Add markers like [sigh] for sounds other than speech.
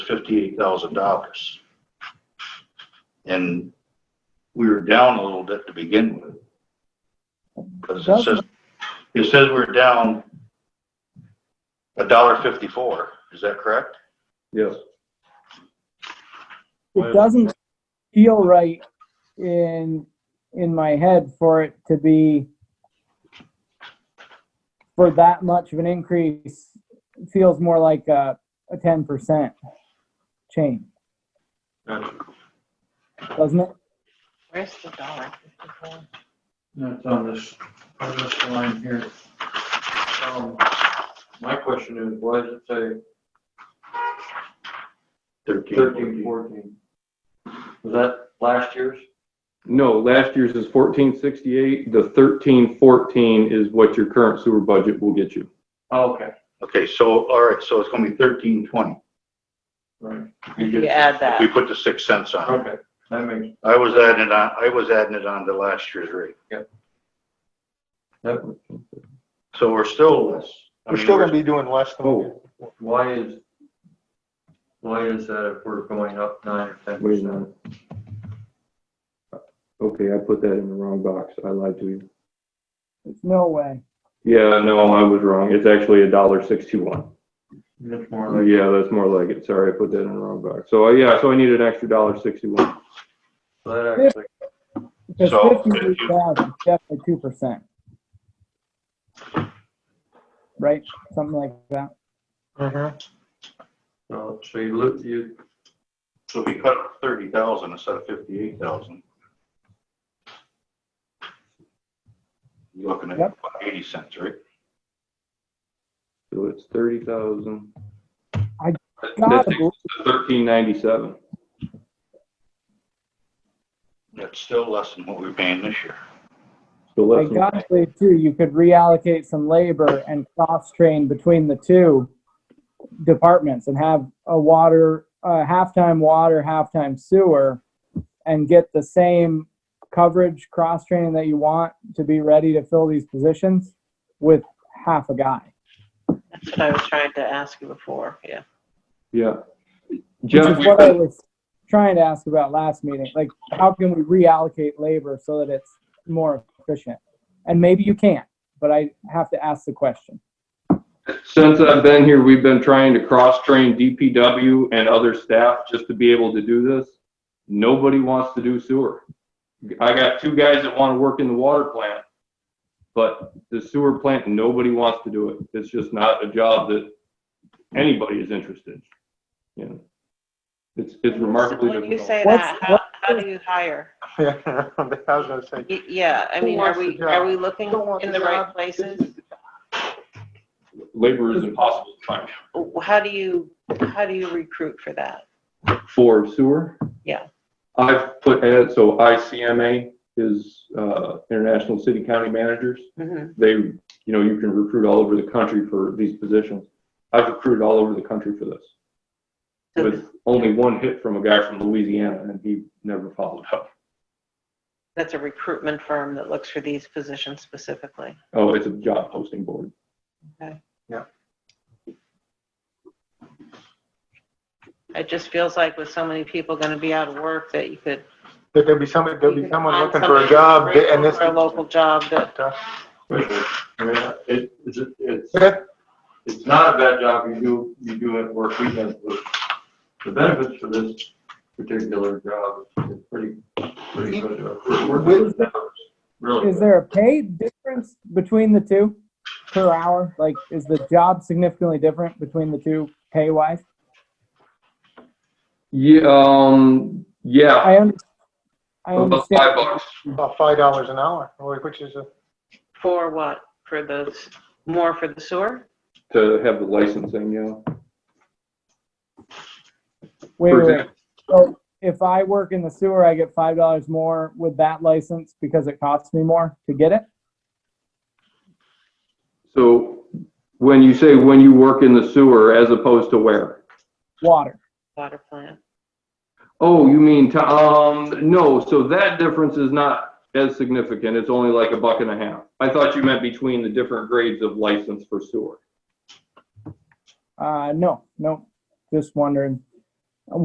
fifty-eight thousand dollars. And we were down a little bit to begin with. Because it says, it says we're down a dollar fifty-four, is that correct? Yes. it doesn't feel right in, in my head for it to be for that much of an increase, It feels more like a, a ten percent change, doesn't it? Where's the dollar? fifty-four? That's on this, on this line here. Um, My question is, why does it say thirteen, fourteen? Was that last year's? No, last year's is fourteen sixty-eight. The thirteen fourteen is what your current sewer budget will get you. Oh, Okay, Okay, so, all right, so it's gonna be thirteen twenty. right, You add We that. put the six cents on it. okay, that makes, I was adding it on, I was adding it on to last year's rate. that, So we're still less. I We're mean, still gonna be doing less than. Oh. why is, why is that if we're going up nine or ten Wait a percent? minute. Okay, I put that in the wrong box. I lied to you. There's no way. Yeah, no, I was wrong. It's actually a dollar sixty-one. Uh, It's more like, Yeah, that's more like it. Sorry, I put that in the wrong box. So, uh, yeah, so I need an extra dollar sixty-one. that actually, Because So, if you- fifty-eight thousand, is definitely two percent. Right, something like that. Mhm. Mm-hmm. so so you look, you, So we cut thirty thousand instead of fifty-eight thousand. You're looking at Yep. about eighty cents, right? So it's thirty thousand. I That's gotta believe- thirteen ninety-seven. That's still less than what we we're paying this year. So I less than gotta believe too, you could reallocate some labor and cross-train between the two departments and have a water, uh, halftime water, halftime sewer, and get the same coverage, cross-training that you want to be ready to fill these positions with half a guy. That's what I was trying to ask you before, yeah. Yeah. Which Jeff, is what I was trying to ask about last meeting, like, how can we reallocate labor so that it's more efficient? And maybe you can't, but I have to ask the question. since I've been here, we've been trying to cross-train DPW and other staff just to be able to do this. Nobody wants to do sewer. I got two guys that want to work in the water plant, but the sewer plant, nobody wants to do it. It's just not a job that anybody is interested. You know, it's, it's remarkably When you difficult. say What's- that, how, how do you hire? [laughs] Yeah, I was gonna say, Y- Yeah, I Who mean, are wants we, the are job? we looking Don't want in the the right job. places? Labor is impossible to find. W- How do you, how do you recruit for that? For sewer? Yeah. I've put, ad- so ICMA is uh, International City County Managers. Mhm. They, you know, you can recruit all over the country for these positions. I've recruited all over the country for this So with only one hit from a guy from Louisiana and he never followed up. that's a recruitment firm that looks for these positions specifically. Oh, it's a job posting board. It just feels like with so many people gonna be out of work that you could. there could be somebody, there'll you be could someone find looking for a somebody job grateful and this. For a local job that, I mean, it, it's, it's. Yeah, it's not a bad job, you do, you do it work weekends, but the benefits for this particular job is pretty, pretty good. It's worth it. Really. Is there a pay difference between the two per hour? Like, is the job significantly different between the two pay wise? Yeah, um, yeah, I under, I about five understand. bucks. [laughs] About five dollars an hour, which is a. for what? For those, more for the sewer? To have the licensing, yeah. Wait, wait, For wait. example- So if I work in the sewer, I get five dollars more with that license because it costs me more to get it? So when you say when you work in the sewer as opposed to where? Water. water plant. Oh, you mean, to- um, no, so that difference is not as significant, it's only like a buck and a half. I thought you meant between the different grades of license for sewer. Uh, no, no, just wondering.